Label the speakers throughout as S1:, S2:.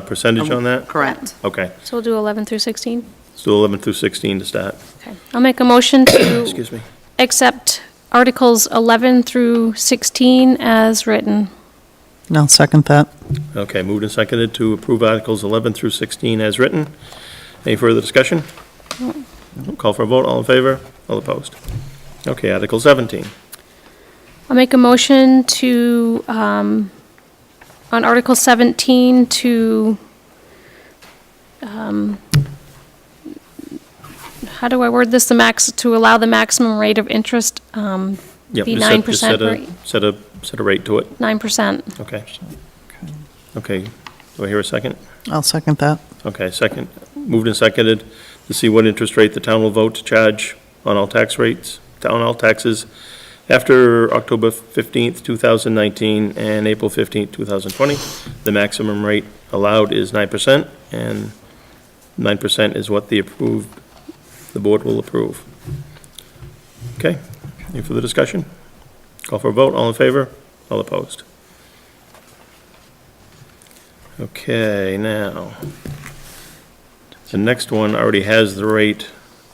S1: Um,
S2: percentage on that?
S3: Correct.
S2: Okay,
S4: So we'll do 11 through 16?
S2: let's do 11 through 16 to start.
S4: Okay. I'll make a motion to
S2: Excuse me.
S4: accept Articles 11 through 16 as written.
S1: And I'll second that.
S2: Okay, moved and seconded to approve Articles 11 through 16 as written. Any further discussion? Call for a vote, all in favor, all opposed? Okay, Article 17.
S4: I'll make a motion to, um, on Article 17, to, um, how do I word this, the max, to allow the maximum rate of interest, um,
S2: Yep,
S4: The
S2: just set- just
S4: 9%
S2: set a-
S4: rate.
S2: Set a, set a rate to it,
S4: 9%.
S2: okay. Okay, do I hear a second?
S1: I'll second that.
S2: Okay, second, moved and seconded to see what interest rate the town will vote to charge on all tax rates, on all taxes after October 15th, 2019, and April 15th, 2020. The maximum rate allowed is 9%, and 9% is what the approved, the board will approve. Okay, any further discussion? Call for a vote, all in favor, all opposed? Okay, now. The next one already has the rate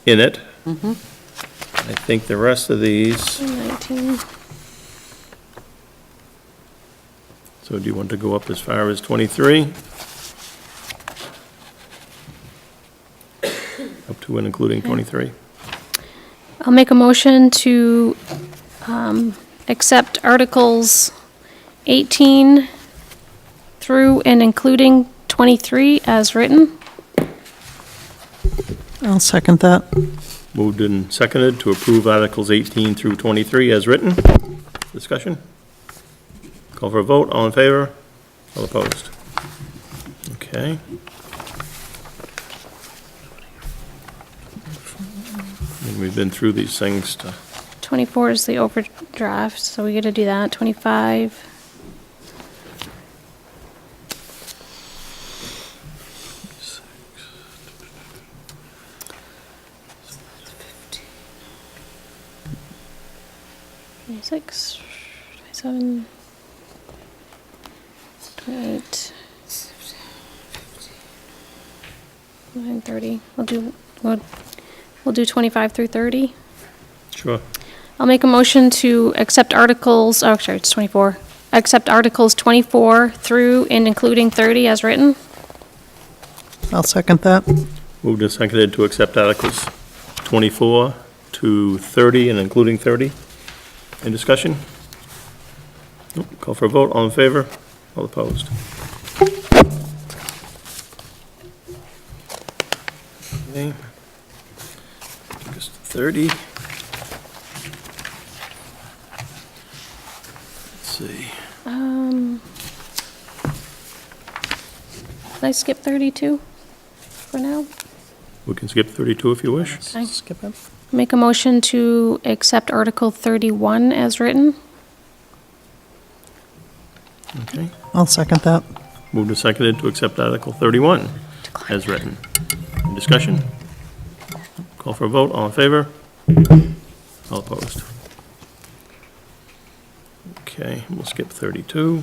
S2: in it. I think the rest of these,
S4: 19.
S2: so do you want to go up as far as 23? Up to and including 23?
S4: I'll make a motion to um, accept Articles 18 through and including 23 as written.
S1: I'll second that.
S2: Moved and seconded to approve Articles 18 through 23 as written. Discussion? Call for a vote, all in favor, all opposed? Okay. And we've been through these things to,
S4: 24 is the overdraft, so we got to do that. 25, Twenty-six, twenty-seven, twenty-eight, nine, thirty. We'll do, we'll, we'll do 25 through 30.
S2: sure.
S4: I'll make a motion to accept articles, oh, sorry, it's 24. Accept articles 24 through and including 30 as written.
S1: I'll second that.
S2: Moved and seconded to accept Articles 24 to 30 and including 30. Any discussion? Nope. Call for a vote, all in favor, all opposed? Okay. Just 30. Let's see.
S4: Um, Can I skip 32 for now?
S2: We can skip 32 if you wish.
S4: Okay.
S1: Skip it.
S4: Make a motion to accept Article 31 as written.
S2: Okay.
S1: I'll second that.
S2: Moved and seconded to accept Article 31 as written. Any Discussion. Call for a vote, all in favor? All opposed? Okay, we'll skip 32.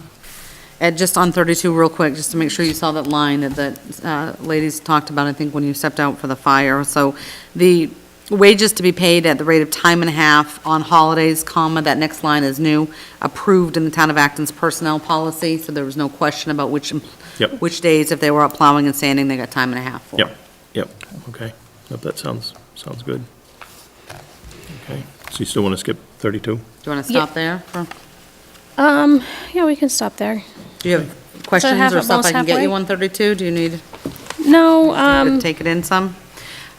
S3: Ed, just on 32 real quick, just to make sure you saw that line that that uh, ladies talked about, I think, when you stepped out for the fire. So the wages to be paid at the rate of time and a half on holidays, comma, that next line is new, approved in the town of Acton's personnel policy, so there was no question about which, em-
S2: Yep.
S3: which days, if they were out plowing and sanding, they got time and a half for.
S2: Yep, yep, okay. Yep, That sounds, sounds good. Okay, so you still want to skip 32?
S3: Do you want to
S4: Yeah.
S3: stop there? for-
S4: Um, yeah, we can stop there.
S3: Do you have questions
S4: have
S3: or
S4: it
S3: stuff I
S4: most
S3: can get you
S4: halfway?
S3: on 32? Do you need?
S4: No, um,
S3: Could take it in some.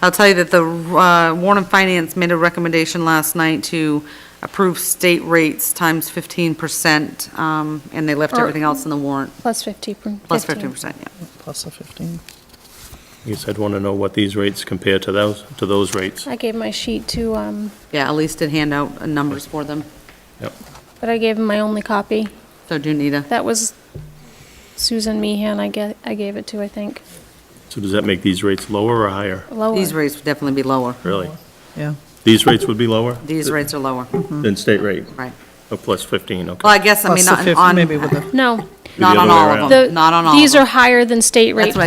S3: I'll tell you that the uh, Warren and Finance made a recommendation last night to approve state rates times 15%, um, and they left
S4: Or-
S3: everything else in the warrant,
S4: plus 50. per-
S3: plus
S4: 15.
S3: 15%, yeah.
S1: Plus the 15.
S2: I guess I'd want to know what these rates compare to those, to those rates.
S4: I gave my sheet to, um,
S3: Yeah, Elise did hand out uh, numbers for them,
S2: Yep,
S4: but I gave him my only copy.
S3: so do you need a,
S4: That was Susan Meehan I get, I gave it to, I think,
S2: so does that make these rates lower or higher?
S4: lower.
S3: these rates would definitely be lower.
S2: Really?
S1: Yeah.
S2: These rates would be lower?
S3: These rates are lower,
S2: Than state rate?
S3: right.
S2: Oh, plus 15, okay.
S3: Well, I guess, I
S1: Plus
S3: mean,
S1: the
S3: on-
S1: 15, maybe
S3: on,
S1: with a,
S4: No,
S5: the
S4: Not on
S5: other way
S4: all of
S5: around.
S4: them, not on all of
S3: These are
S4: them.
S3: higher than state rate
S4: That's what I